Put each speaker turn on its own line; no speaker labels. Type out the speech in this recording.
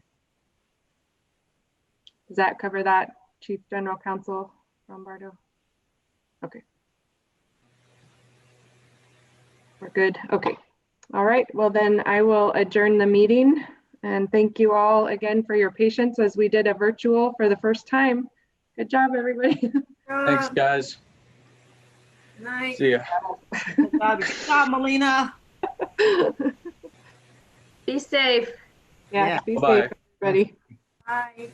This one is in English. Does that cover that, Chief General Counsel Lombardo? Okay. We're good. Okay. All right. Well, then I will adjourn the meeting. And thank you all again for your patience as we did a virtual for the first time. Good job, everybody.
Thanks, guys.
Night.
See ya.
Good job. Good job, Melina.
Be safe.
Yeah, be
Bye-bye.
safe, everybody.
Bye.